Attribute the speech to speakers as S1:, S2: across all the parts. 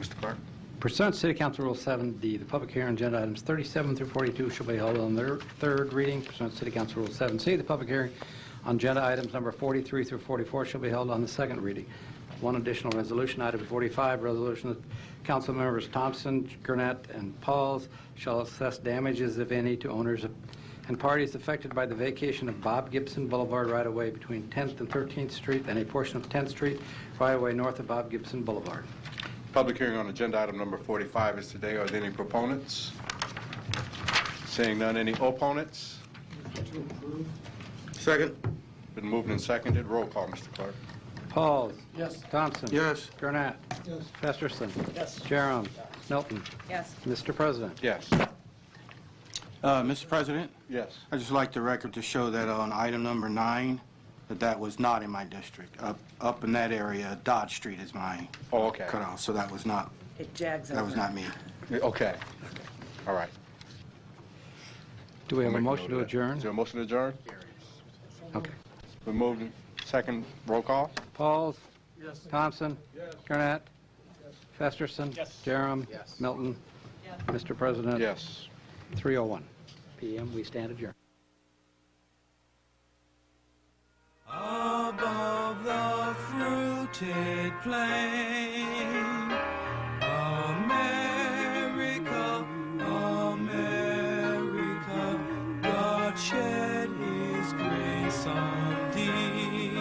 S1: Mr. Clark?
S2: Pursuant to City Council Rule 7D, the public hearing on agenda items 37 through 42 shall be held on their third reading. Pursuant to City Council Rule 7C, the public hearing on agenda items number 43 through 44 shall be held on the second reading. One additional resolution, item 45, resolution that council members Thompson, Gurnett, and Pauls shall assess damages, if any, to owners of- and parties affected by the vacation of Bob Gibson Boulevard right-of-way between 10th and 13th Street and a portion of 10th Street right-of-way north of Bob Gibson Boulevard.
S1: Public hearing on agenda item number 45 is today. Are there any proponents? Seeing none, any opponents?
S3: Second.
S1: Been moved and seconded. Roll call, Mr. Clark.
S2: Pauls.
S4: Yes.
S2: Thompson.
S3: Yes.
S2: Gurnett.
S4: Yes.
S2: Festerson.
S4: Yes.
S2: Jerem. Milton.
S5: Yes.
S2: Mr. President.
S1: Yes.
S3: Uh, Mr. President,
S1: Yes.
S3: I'd just like the record to show that on item number nine, that that was not in my district. Up, up in that area, Dodge Street is my
S1: Oh, okay.
S3: cutoff, so that was not,
S5: It jags over.
S3: that was not me.
S1: Okay. All right.
S2: Do we have a
S1: I'll make
S2: motion
S1: note
S2: to
S1: of that.
S2: adjourn?
S1: Is there a motion to adjourn?
S2: Okay.
S1: Been moved and second. Roll call?
S2: Pauls. Yes. Thompson. Yes. Gurnett. Festerson.
S4: Yes.
S2: Jerem. Milton. Mr. President.
S1: Yes.
S2: 3:01 PM, we stand adjourned.
S6: Above the fruited plain, America, America, God shed His grace on thee,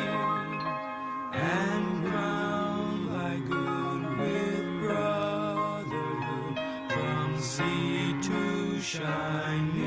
S6: and crown thy good with brotherhood from sea to shining.